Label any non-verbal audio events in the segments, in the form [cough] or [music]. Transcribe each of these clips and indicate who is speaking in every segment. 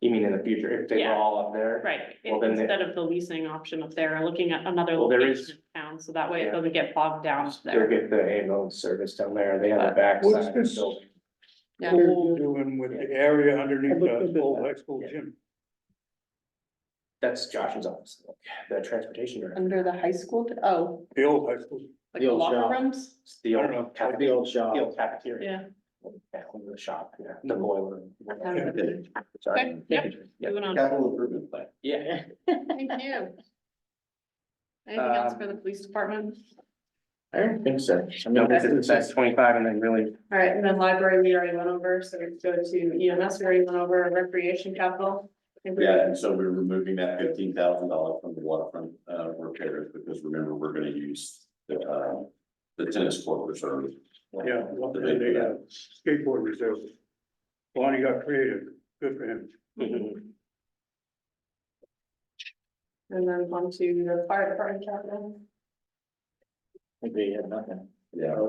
Speaker 1: You mean in the future, if they were
Speaker 2: Yeah.
Speaker 1: all up there?
Speaker 2: Right,
Speaker 1: Well, then they-
Speaker 2: instead of the leasing option up there, looking at another
Speaker 1: Well, there
Speaker 2: location
Speaker 1: is-
Speaker 2: in town, so that way
Speaker 1: Yeah.
Speaker 2: it doesn't get bogged down
Speaker 1: They'll
Speaker 2: there.
Speaker 1: get the ambulance service down there, they have the
Speaker 3: What's
Speaker 1: backside of the
Speaker 3: this?
Speaker 1: building.
Speaker 2: Yeah.
Speaker 3: What are you doing with the area underneath
Speaker 4: I looked
Speaker 3: the
Speaker 4: into
Speaker 3: old
Speaker 4: that.
Speaker 3: high school gym?
Speaker 1: That's Josh's office, the transportation director.
Speaker 2: Under the high school, oh,
Speaker 3: The old high school,
Speaker 2: like
Speaker 4: The old
Speaker 2: locker
Speaker 4: shop.
Speaker 2: rooms?
Speaker 1: It's The
Speaker 3: I don't know.
Speaker 1: old cafe-
Speaker 4: The old
Speaker 1: the
Speaker 4: shop.
Speaker 1: old cafeteria.
Speaker 2: Yeah.
Speaker 1: Yeah, the shop, yeah, the boiler.
Speaker 2: Okay.
Speaker 1: Sorry.
Speaker 2: yep,
Speaker 1: Yeah.
Speaker 5: Um,
Speaker 2: moving on.
Speaker 1: Capital improvement plan. Yeah.
Speaker 2: Thank you. Anything else
Speaker 1: Um,
Speaker 2: for the police department?
Speaker 4: I don't think so. I mean,
Speaker 1: No,
Speaker 4: this
Speaker 1: this
Speaker 4: is-
Speaker 1: is, that's twenty-five and then really,
Speaker 2: All right, and then library, we already went over, so we go to EMS, we already went over recreation capital. And we-
Speaker 5: Yeah, and so we're removing that fifteen thousand dollar from the waterfront uh repairs, because remember, we're gonna use the uh. The tennis court reserve.
Speaker 3: yeah, well, they they got a skateboard reserve. Bonnie got creative, good for him.
Speaker 1: mhm.
Speaker 2: And then on to the fire department capital.
Speaker 4: They have nothing.
Speaker 5: Yeah,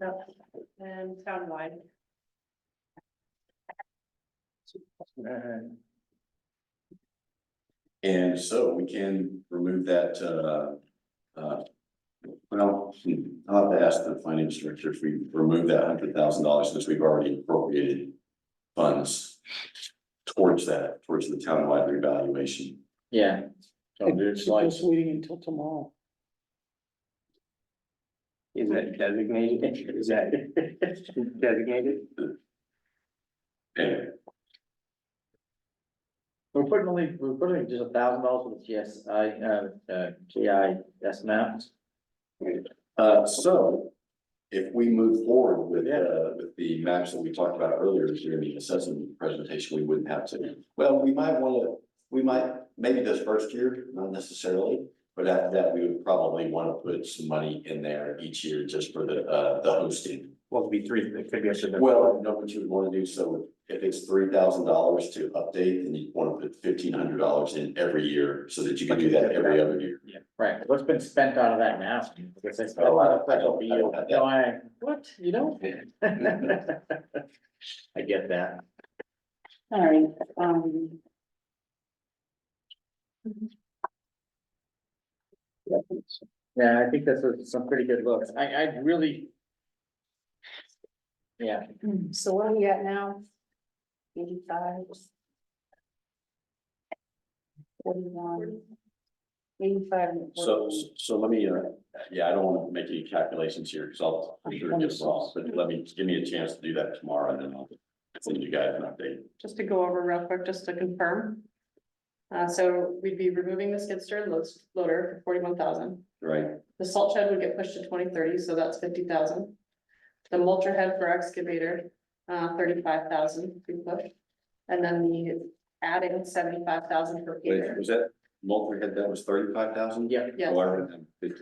Speaker 2: Yep, And um, townwide.
Speaker 5: and so we can remove that uh. Uh. Well, hmm, I'll have to ask the finance director if we remove that hundred thousand dollars, since we've already appropriated. Funds. Towards that, towards the townwide revaluation.
Speaker 4: Yeah. So
Speaker 3: Oh,
Speaker 4: there's like,
Speaker 6: Just waiting until tomorrow.
Speaker 1: Is that designated? Is that designated?
Speaker 5: Anyway,
Speaker 4: we're putting only, we're putting just a thousand dollars for the GSI, uh, uh, GIS maps.
Speaker 5: Uh, so if we move forward with, uh, with the maps that we talked about earlier during the assessment presentation, we wouldn't have to. Well, we might wanna, we might, maybe this first year, not necessarily, but after that, we would probably wanna put some money in there each year just for the, uh, the hosting.
Speaker 1: Well, it'd be three, it could be up to the.
Speaker 5: Well, know what you would wanna do, so if it's three thousand dollars to update, then you wanna put fifteen hundred dollars in every year so that you can do that every other year.
Speaker 4: Right, what's been spent out of that now? Because they spent a lot of special field. No, I, what, you don't? [laughs] I get that.
Speaker 6: All right, um.
Speaker 4: Yeah, I think that's a- some pretty good looks. I, I really. Yeah,
Speaker 2: So what are we at now? Eighty-five.
Speaker 6: Um,
Speaker 2: Forty-one. Eighty-five.
Speaker 5: So, so let me, uh, yeah, I don't want to make any calculations here, because I'll, I'm sure it gets wrong, but let me, give me a chance to do that tomorrow, and then I'll send you guys an update.
Speaker 2: Just to go over real quick, just to confirm. Uh, so we'd be removing the skid steer and loads- loader for forty-one thousand.
Speaker 5: Right,
Speaker 2: The salt shed would get pushed to twenty thirty, so that's fifty thousand. The mulcher head for excavator, uh, thirty-five thousand, we pushed. And then the adding seventy-five thousand for
Speaker 5: wait,
Speaker 2: Peter.
Speaker 5: was that multi-head, that was thirty-five thousand? Oh,
Speaker 4: yeah,
Speaker 2: Yes.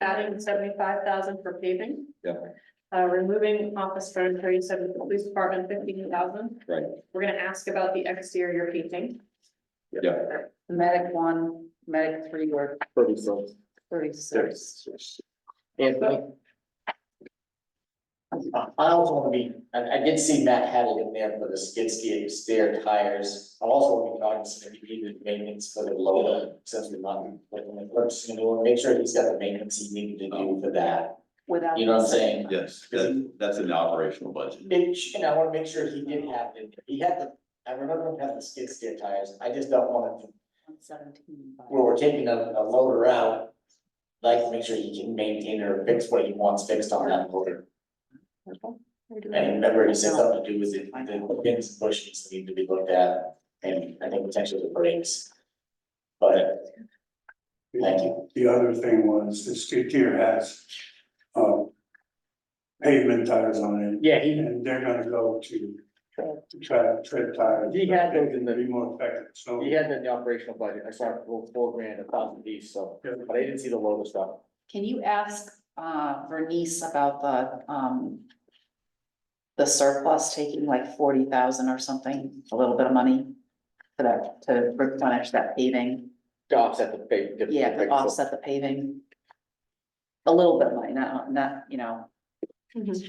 Speaker 2: adding seventy-five thousand for paving.
Speaker 5: Yep.
Speaker 2: Uh, removing office furniture, you said with the police department fifteen thousand.
Speaker 5: Right.
Speaker 2: We're gonna ask about the exterior painting.
Speaker 5: yeah,
Speaker 6: Medic one, medic three were
Speaker 4: pretty close.
Speaker 6: thirty-six.
Speaker 4: Anthony?
Speaker 7: I I also want to be, I, I did see Matt had it in there for the skid steer, stair tires. I also want to be cognizant if you needed maintenance for the loader, since we're not, like, when we're just gonna go and make sure he's got the maintenance he needed to do for that.
Speaker 6: Without.
Speaker 7: You know what I'm saying?
Speaker 5: yes, that, that's in the operational budget.
Speaker 7: It, and I want to make sure he did have it. in there. He had the, I remember him having the skid steer tires. I just don't want it to,
Speaker 6: Seventeen.
Speaker 7: where we're taking a, a loader out. Like, to make sure he can maintain or fix what he wants fixed on that loader. And remember, he said something to do with it, the pins, and bushes need to be looked at, and I think potentially the brakes. But, thank you,
Speaker 3: The other thing was the skid steer has, uh, pavement tires on it.
Speaker 4: Yeah, he,
Speaker 3: And they're gonna go to try tread tires.
Speaker 4: He had those in the-
Speaker 3: Be more effective, so.
Speaker 4: he had that in the operational budget. I saw it for four grand, a thousand piece, so,
Speaker 3: Yeah.
Speaker 4: but I didn't see the logo stuff.
Speaker 6: Can you ask uh Vernice about the um. The surplus taking like forty thousand or something, a little bit of money for that, to replenish that paving,
Speaker 4: To offset the big. the-
Speaker 6: yeah,
Speaker 4: the
Speaker 6: to
Speaker 4: big-
Speaker 6: offset the paving. A little bit of money, not not, you know,